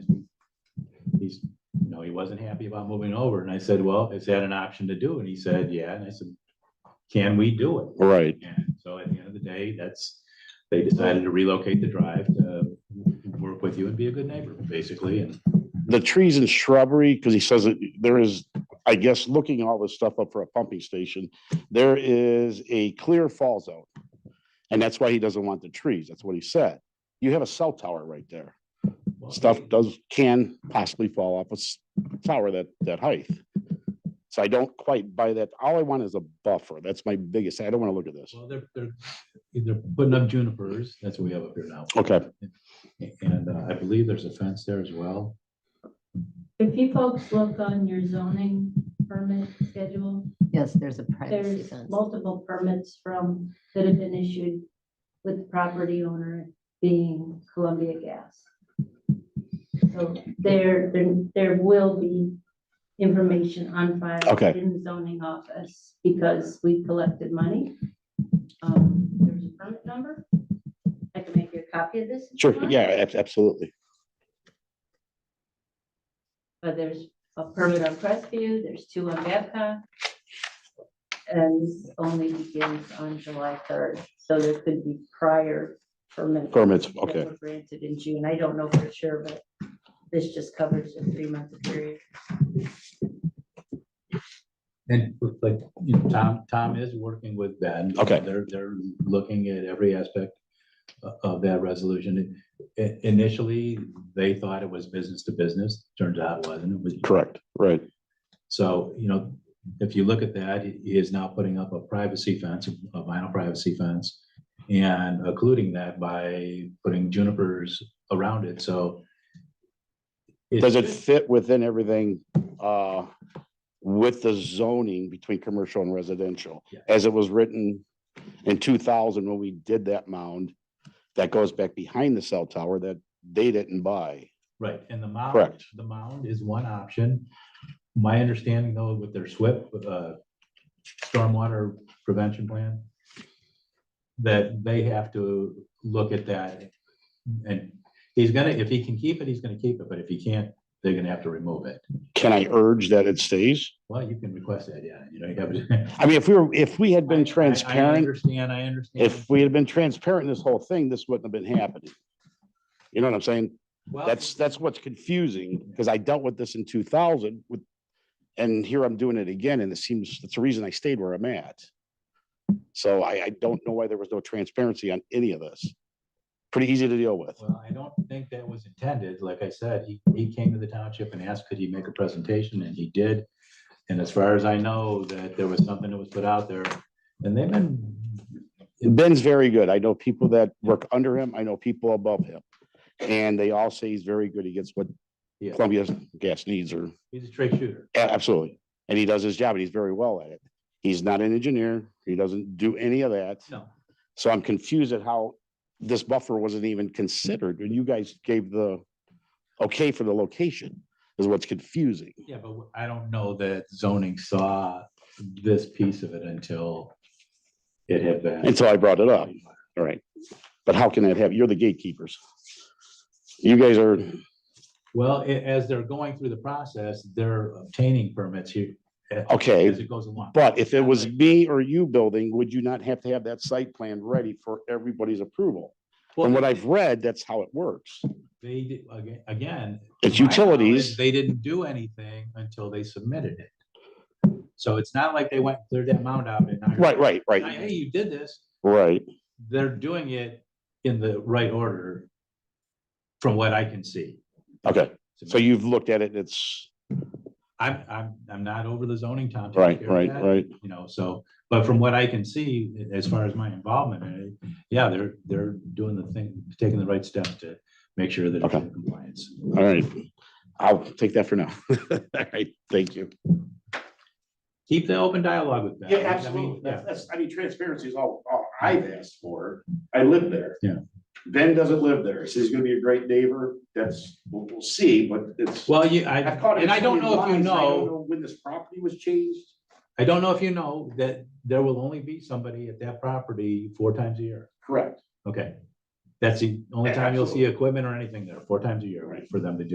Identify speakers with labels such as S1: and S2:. S1: know, he wasn't happy about moving over, and I said, well, is that an option to do? And he said, yeah, and I said, can we do it?
S2: Right,
S1: And so at the end of the day, that's, they decided to relocate the drive to work with you and be a good neighbor, basically, and
S2: the trees and shrubbery, because he says that there is, I guess, looking all this stuff up for a pumping station, there is a clear fall zone. And that's why he doesn't want the trees. That's what he said. You have a cell tower right there.
S1: well,
S2: Stuff does, can possibly fall off a s- tower that, that height. So I don't quite buy that. All I want is a buffer. That's my biggest, I don't want to look at this.
S1: Well, they're, they're, they're putting up junipers, that's what we have up here now.
S2: Okay,
S1: And uh, I believe there's a fence there as well.
S3: If you folks look on your zoning permit schedule,
S4: Yes, there's a privacy
S3: there's
S4: fence.
S3: multiple permits from, that have been issued with the property owner being Columbia Gas. So there, there, there will be information on file.
S2: Okay.
S3: In the zoning office because we collected money. Um, There's a permit number. I can make you a copy of this. if you
S2: sure.
S3: want.
S2: Yeah, ab- absolutely.
S3: But there's a permit on Crestview, there's two on Babcock. And this only begins on July third, so there could be prior permits.
S2: Permits,
S3: that
S2: okay.
S3: were Granted in June, I don't know for sure, but this just covers a three-month period.
S1: And like, you know, Tom, Tom is working with Ben.
S2: Okay.
S1: They're, they're looking at every aspect o- of that resolution. I- Initially, they thought it was business to business, turns out it wasn't, it was.
S2: Correct, right.
S1: So, you know, if you look at that, he- he is now putting up a privacy fence, a vinyl privacy fence, and occluding that by putting junipers around it, so. it's-
S2: Does it fit within everything uh, with the zoning between commercial and residential?
S1: Yeah.
S2: As it was written in two thousand when we did that mound, that goes back behind the cell tower that they didn't buy.
S1: Right, and the mound,
S2: Correct.
S1: the mound is one option. My understanding though, with their SWIP, uh, stormwater prevention plan, that they have to look at that. And he's gonna, if he can keep it, he's gonna keep it, but if he can't, they're gonna have to remove it.
S2: Can I urge that it stays?
S1: Well, you can request that, yeah, you know, you have.
S2: I mean, if we were, if we had been
S1: I
S2: transparent,
S1: understand, I understand.
S2: if we had been transparent in this whole thing, this wouldn't have been happening. You know what I'm saying?
S1: Well,
S2: That's, that's what's confusing, because I dealt with this in two thousand with, and here I'm doing it again, and it seems, that's the reason I stayed where I'm at. So I, I don't know why there was no transparency on any of this. Pretty easy to deal with.
S1: Well, I don't think that was intended. Like I said, he, he came to the township and asked, could he make a presentation? And he did. And as far as I know, that there was something that was put out there and they've been,
S2: Ben's very good. I know people that work under him. I know people above him. And they all say he's very good. He gets what
S1: yeah,
S2: Columbia Gas needs or,
S1: he's a straight shooter.
S2: a- absolutely. And he does his job and he's very well at it. He's not an engineer. He doesn't do any of that.
S1: No,
S2: So I'm confused at how this buffer wasn't even considered when you guys gave the okay for the location is what's confusing.
S1: yeah, but I don't know that zoning saw this piece of it until it had been.
S2: Until I brought it up. All right. But how can that have, you're the gatekeepers. You guys are,
S1: Well, a- as they're going through the process, they're obtaining permits here. a-
S2: Okay,
S1: As it goes along.
S2: but if it was me or you building, would you not have to have that site plan ready for everybody's approval? From what
S1: Well,
S2: I've read, that's how it works.
S1: They, did- aga- again.
S2: It's
S1: to my knowledge,
S2: utilities.
S1: They didn't do anything until they submitted it. So it's not like they went, and cleared that mound out and. now you're-
S2: Right, right,
S1: now,
S2: right,
S1: Hey, you did this.
S2: right.
S1: They're doing it in the right order from what I can see.
S2: Okay. So you've looked at it, it's,
S1: I'm, I'm, I'm not over the zoning, Tom. take
S2: right,
S1: care of
S2: right,
S1: that,
S2: right.
S1: You know, so, but from what I can see, as far as my involvement, in it, yeah, they're, they're doing the thing, taking the right steps to make sure that it's
S2: Okay.
S1: in compliance.
S2: All right. I'll take that for now. All right, thank you.
S1: Keep the open dialogue with them.
S5: Yeah,
S1: I mean,
S5: absolutely. That's,
S1: Yeah,
S5: that's, I mean, transparency is all, all I've asked for. I live there.
S1: Yeah.
S5: Ben doesn't live there. So he's gonna be a great neighbor. That's, we'll, we'll see, but it's.
S1: Well, you, I,
S5: I've caught it in
S1: and I
S5: so
S1: don't
S5: many
S1: know if you
S5: lines, I don't
S1: know,
S5: When this property was changed.
S1: I don't know if you know that there will only be somebody at that property four times a year.
S5: Correct.
S1: Okay. That's the only time you'll see equipment or anything there, four times a year
S5: Right.
S1: for them to do.